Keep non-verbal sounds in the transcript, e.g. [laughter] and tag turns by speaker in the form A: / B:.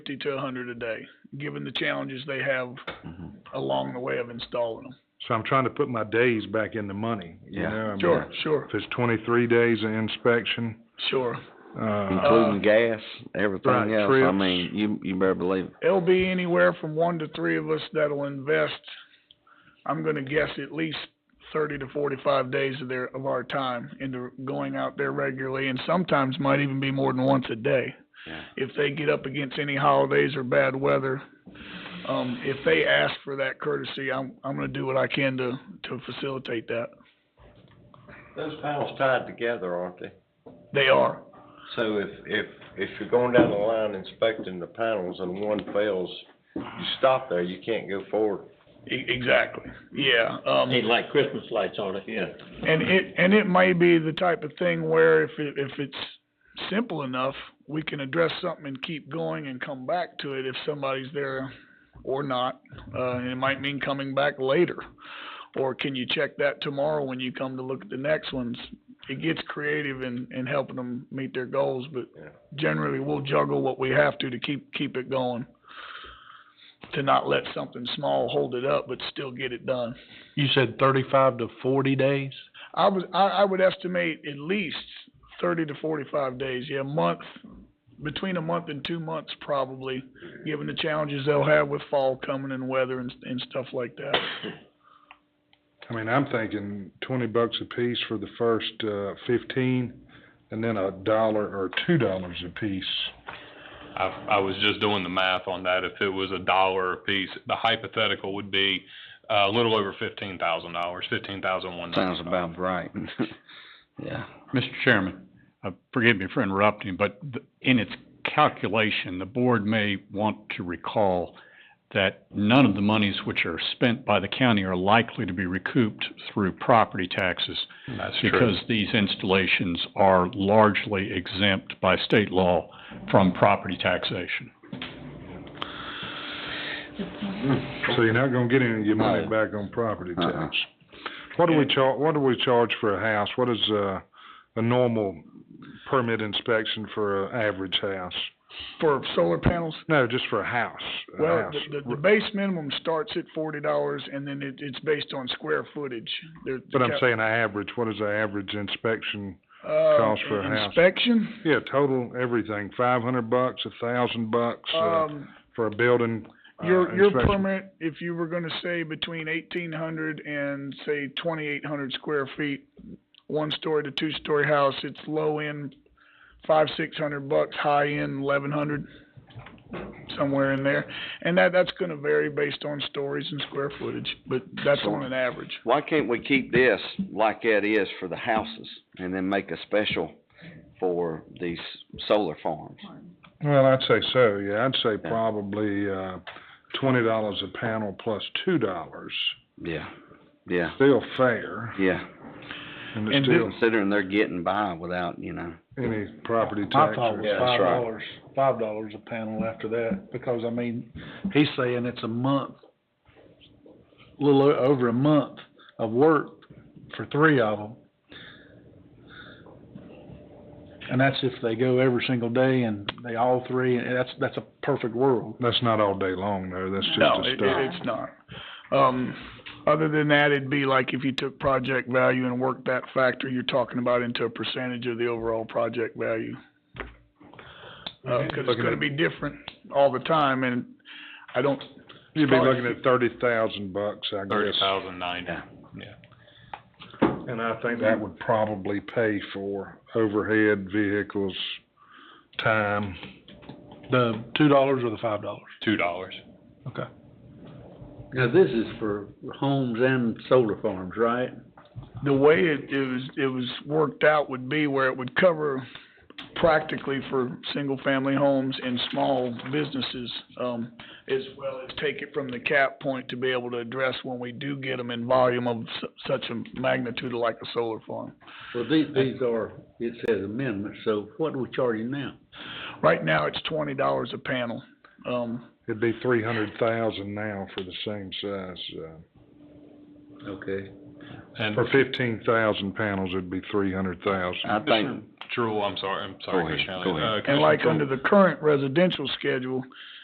A: fifty to a hundred a day, given the challenges they have
B: Mm-hmm.
A: along the way of installing them.
C: So I'm trying to put my days back in the money, you
B: Yeah.
C: know? I mean,
A: Sure, sure,
C: If it's twenty-three days of inspection,
A: sure.
C: uh,
B: Including gas, everything
C: right,
B: else, I
C: trips.
B: mean, you, you better believe it.
A: It'll be anywhere from one to three of us that'll invest, I'm gonna guess at least thirty to forty-five days of their, of our time into going out there regularly and sometimes might even be more than once a day.
B: Yeah.
A: If they get up against any holidays or bad weather, um, if they ask for that courtesy, I'm, I'm gonna do what I can to, to facilitate that.
D: Those panels tied together, aren't they?
A: They are,
D: So if, if, if you're going down the line inspecting the panels and one fails, you stop there, you can't go forward.
A: e- exactly, yeah, um.
E: Need like Christmas lights on it, yeah.
A: And it, and it may be the type of thing where if it, if it's simple enough, we can address something and keep going and come back to it if somebody's there or not. Uh, and it might mean coming back later. Or can you check that tomorrow when you come to look at the next ones? It gets creative in, in helping them meet their goals, but
D: Yeah.
A: generally we'll juggle what we have to to keep, keep it going. To not let something small hold it up, but still get it done.
F: You said thirty-five to forty days?
A: I would, I, I would estimate at least thirty to forty-five days, yeah, a month, between a month and two months probably, given the challenges they'll have with fall coming and weather and, and stuff like that.
C: I mean, I'm thinking twenty bucks a piece for the first, uh, fifteen, and then a dollar or two dollars a piece.
G: I, I was just doing the math on that. If it was a dollar a piece, the hypothetical would be uh, a little over fifteen thousand dollars, fifteen thousand one
B: Sounds
G: ninety-five.
B: about right. [laughs] Yeah,
F: Mr. Chairman, uh, forgive me for interrupting, but th- in its calculation, the board may want to recall that none of the monies which are spent by the county are likely to be recouped through property taxes
G: That's true.
F: because these installations are largely exempt by state law from property taxation.
C: So you're not gonna get any of your money back on property
B: Uh-uh.
C: tax. What do we char, what do we charge for a house? What is, uh, a normal permit inspection for an average house?
A: For solar panels,
C: No, just for a house, a
A: well,
C: house.
A: the, the, the base minimum starts at forty dollars and then it, it's based on square footage. There- the
C: But I'm
A: cap-
C: saying an average, what is the average inspection?
A: uh,
C: cost for a house.
A: Inspection,
C: Yeah, total, everything, five hundred bucks, a thousand bucks, uh,
A: um,
C: for a building, uh,
A: your, your
C: inspection.
A: permit, if you were gonna say between eighteen hundred and say twenty-eight hundred square feet, one-story to two-story house, it's low-end, five, six hundred bucks, high-end, eleven hundred, somewhere in there. And that, that's gonna vary based on stories and square footage, but that's on an average.
B: why can't we keep this like it is for the houses and then make a special for these solar farms?
C: Well, I'd say so, yeah, I'd say
B: Yeah.
C: probably, uh, twenty dollars a panel plus two dollars.
B: Yeah, yeah,
C: Still fair,
B: yeah,
C: and
A: And
C: it's still
B: considering they're getting by without, you know,
C: any property
F: My
C: tax
F: thought
C: or.
F: was
D: Yeah,
F: five
B: that's right.
F: dollars, five dollars a panel after that, because I mean, he's saying it's a month, a little o- over a month of work for three of them. And that's if they go every single day and they all three, and that's, that's a perfect world.
C: That's not all day long, though, that's just
A: No,
C: a
A: it,
C: start.
A: it- it's not. Um, other than that, it'd be like if you took project value and worked that factor you're talking about into a percentage of the overall project value. Uh, 'cause it's
C: Looking
A: gonna
C: at-
A: be different all the time, and I don't,
C: You'd be
A: probably-
C: looking at thirty thousand bucks, I guess.
G: Thirty thousand ninety.
C: And I think that would probably pay for overhead vehicles, time.
F: The two dollars or the five dollars?
G: Two dollars.
E: Now, this is for homes and solar farms, right?
A: the way it, it was, it was worked out would be where it would cover practically for single-family homes and small businesses, um, as well as take it from the cap point to be able to address when we do get them in volume of su- such a magnitude like a solar farm.
E: Well, these, these are, it says amendments, so what are we charging now?
A: Right now, it's twenty dollars a panel. Um,
C: It'd be three hundred thousand now for the same size, uh,
E: Okay.
G: And
C: for fifteen thousand panels, it'd be three hundred thousand.
B: I think
F: True, I'm sorry, I'm
H: Go
F: sorry,
H: ahead,
F: Commissioner
H: go
F: Elliott. Uh,
A: And
F: Commissioner
A: like
G: uh,
F: True.
A: under the current residential schedule,